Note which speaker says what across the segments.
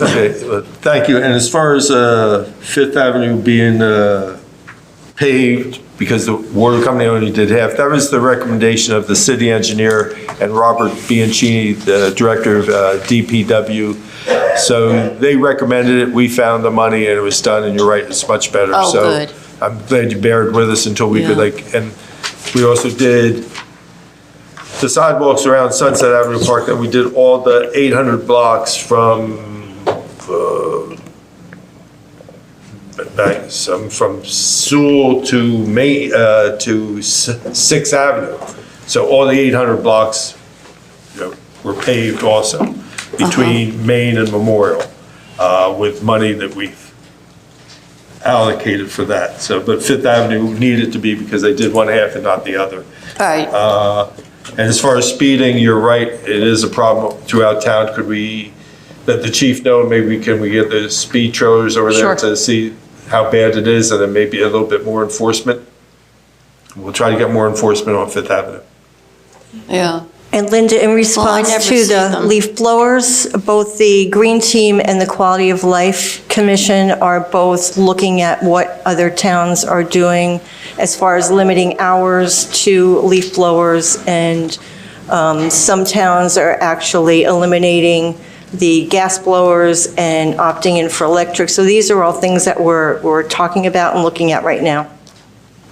Speaker 1: Okay, well, thank you. And as far as uh, Fifth Avenue being uh, paved, because the water company only did half, that was the recommendation of the city engineer and Robert Bianchini, the director of uh, DPW. So they recommended it, we found the money, and it was done, and you're right, it's much better.
Speaker 2: Oh,
Speaker 1: So
Speaker 2: good.
Speaker 1: I'm glad you bared with us until we could
Speaker 2: Yeah.
Speaker 1: like, and we also did the sidewalks around Sunset Avenue Park, that we did all the 800 blocks from, uh, back, some, from Sewell to Ma, uh, to S- Sixth Avenue. So all the 800 blocks, you know, were paved also between Main and Memorial, uh, with money that we've allocated for that. So, but Fifth Avenue needed to be because they did one half and not the other.
Speaker 2: Right,
Speaker 1: And as far as speeding, you're right, it is a problem throughout town. Could we, let the chief know, maybe can we get the speed trailers over there
Speaker 2: Sure.
Speaker 1: to see how bad it is and then maybe a little bit more enforcement? We'll try to get more enforcement on Fifth Avenue.
Speaker 2: yeah.
Speaker 3: And Linda, in response
Speaker 2: Oh, never
Speaker 3: to
Speaker 2: see
Speaker 3: the
Speaker 2: them.
Speaker 3: leaf blowers, both the Green Team and the Quality of Life Commission are both looking at what other towns are doing as far as limiting hours to leaf blowers. And um, some towns are actually eliminating the gas blowers and opting in for electric. So these are all things that we're, we're talking about and looking at right now.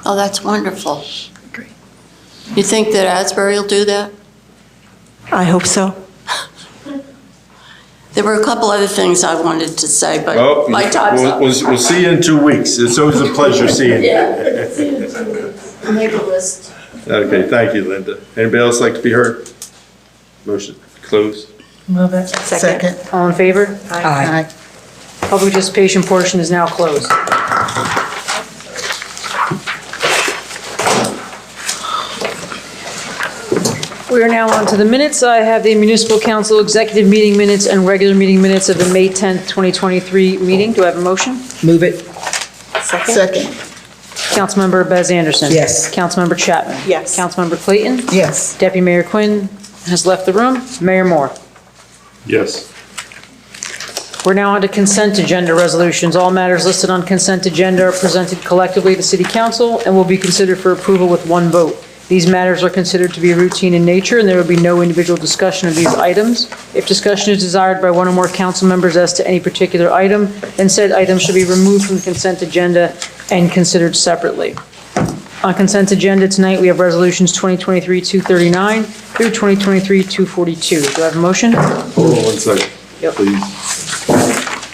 Speaker 2: Oh, that's wonderful. You think that Asbury will do that?
Speaker 3: I hope so.
Speaker 2: There were a couple other things I wanted to say, but my time's
Speaker 1: Oh, We'll,
Speaker 2: up.
Speaker 1: we'll we'll see you in two weeks. It's always a pleasure seeing you.
Speaker 2: Yeah. Make a list.
Speaker 1: Okay, thank you, Linda. Anybody else like to be heard? Motion close.
Speaker 4: Move it.
Speaker 3: Second.
Speaker 4: All in favor? Aye. Public participation portion is now closed. We are now on to the minutes. I have the municipal council executive meeting minutes and regular meeting minutes of the May 10th, 2023 meeting. Do I have a motion?
Speaker 5: Move it. Second.
Speaker 4: Councilmember Bez Anderson.
Speaker 5: Yes.
Speaker 4: Councilmember Chapman.
Speaker 3: Yes.
Speaker 4: Councilmember Clayton.
Speaker 5: Yes.
Speaker 4: Deputy Mayor Quinn has left the room. Mayor Moore.
Speaker 1: Yes.
Speaker 4: We're now on to consent agenda resolutions. All matters listed on consent agenda are presented collectively to City Council and will be considered for approval with one vote. These matters are considered to be routine in nature, and there will be no individual discussion of these items. If discussion is desired by one or more council members as to any particular item, then said item should be removed from the consent agenda and considered separately. On consent agenda tonight, we have resolutions 2023-239 through 2023-242. Do I have a motion?
Speaker 1: Hold on one second,
Speaker 4: Yep.
Speaker 1: please.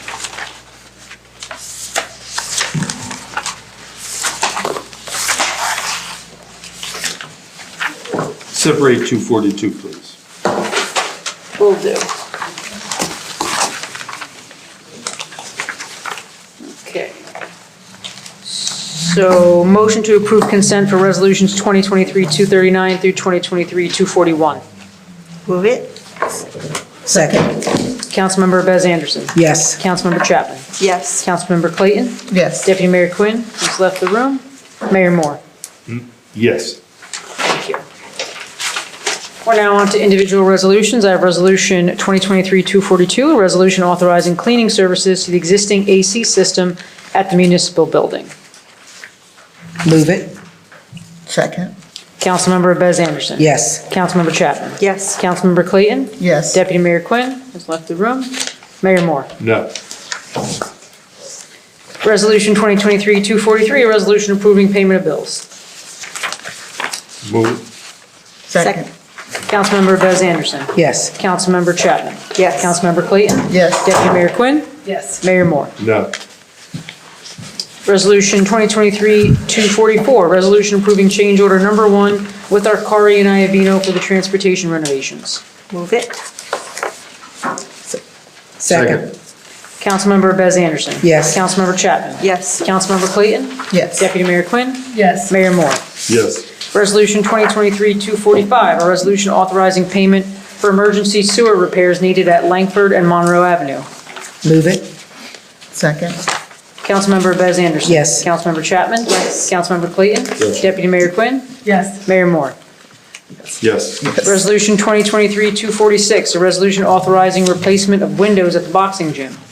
Speaker 1: Separate 242, please.
Speaker 4: Will do. Okay. So motion to approve consent for resolutions 2023-239 through 2023-241.
Speaker 3: Move it?
Speaker 5: Second.
Speaker 4: Councilmember Bez Anderson.
Speaker 5: Yes.
Speaker 4: Councilmember Chapman.
Speaker 3: Yes.
Speaker 4: Councilmember Clayton.
Speaker 5: Yes.
Speaker 4: Deputy Mayor Quinn, who's left the room. Mayor Moore.
Speaker 1: Yes.
Speaker 4: Thank you. We're now on to individual resolutions. I have Resolution 2023-242, a resolution authorizing cleaning services to the existing AC system at the municipal building.
Speaker 5: Move it. Second.
Speaker 4: Councilmember Bez Anderson.
Speaker 5: Yes.
Speaker 4: Councilmember Chapman.
Speaker 3: Yes.
Speaker 4: Councilmember Clayton.
Speaker 5: Yes.
Speaker 4: Deputy Mayor Quinn has left the room. Mayor Moore.
Speaker 1: No.
Speaker 4: Resolution 2023-243, a resolution approving payment of bills.
Speaker 1: Move.
Speaker 5: Second.
Speaker 4: Councilmember Bez Anderson.
Speaker 5: Yes.
Speaker 4: Councilmember Chapman.
Speaker 3: Yes.
Speaker 4: Councilmember Clayton.
Speaker 5: Yes.
Speaker 4: Deputy Mayor Quinn.
Speaker 5: Yes.
Speaker 4: Mayor Moore.
Speaker 1: No.
Speaker 4: Resolution 2023-244, resolution approving change order number one with Arcari and Iavino for the transportation renovations.
Speaker 3: Move it?
Speaker 5: Second.
Speaker 4: Councilmember Bez Anderson.
Speaker 5: Yes.
Speaker 4: Councilmember Chapman.
Speaker 3: Yes.
Speaker 4: Councilmember Clayton.
Speaker 5: Yes.
Speaker 4: Deputy Mayor Quinn. Yes. Mayor Moore.
Speaker 1: Yes.
Speaker 4: Resolution 2023-245, a resolution authorizing payment for emergency sewer repairs needed at Langford and Monroe Avenue.
Speaker 5: Move it. Second.
Speaker 4: Councilmember Bez Anderson.
Speaker 5: Yes.
Speaker 4: Councilmember Chapman.
Speaker 3: Yes.
Speaker 4: Councilmember Clayton.
Speaker 1: Yes.
Speaker 4: Deputy Mayor Quinn.
Speaker 6: Yes.
Speaker 4: Mayor Moore.
Speaker 1: Yes.
Speaker 4: Resolution 2023-246, a resolution authorizing replacement of windows at the boxing gym.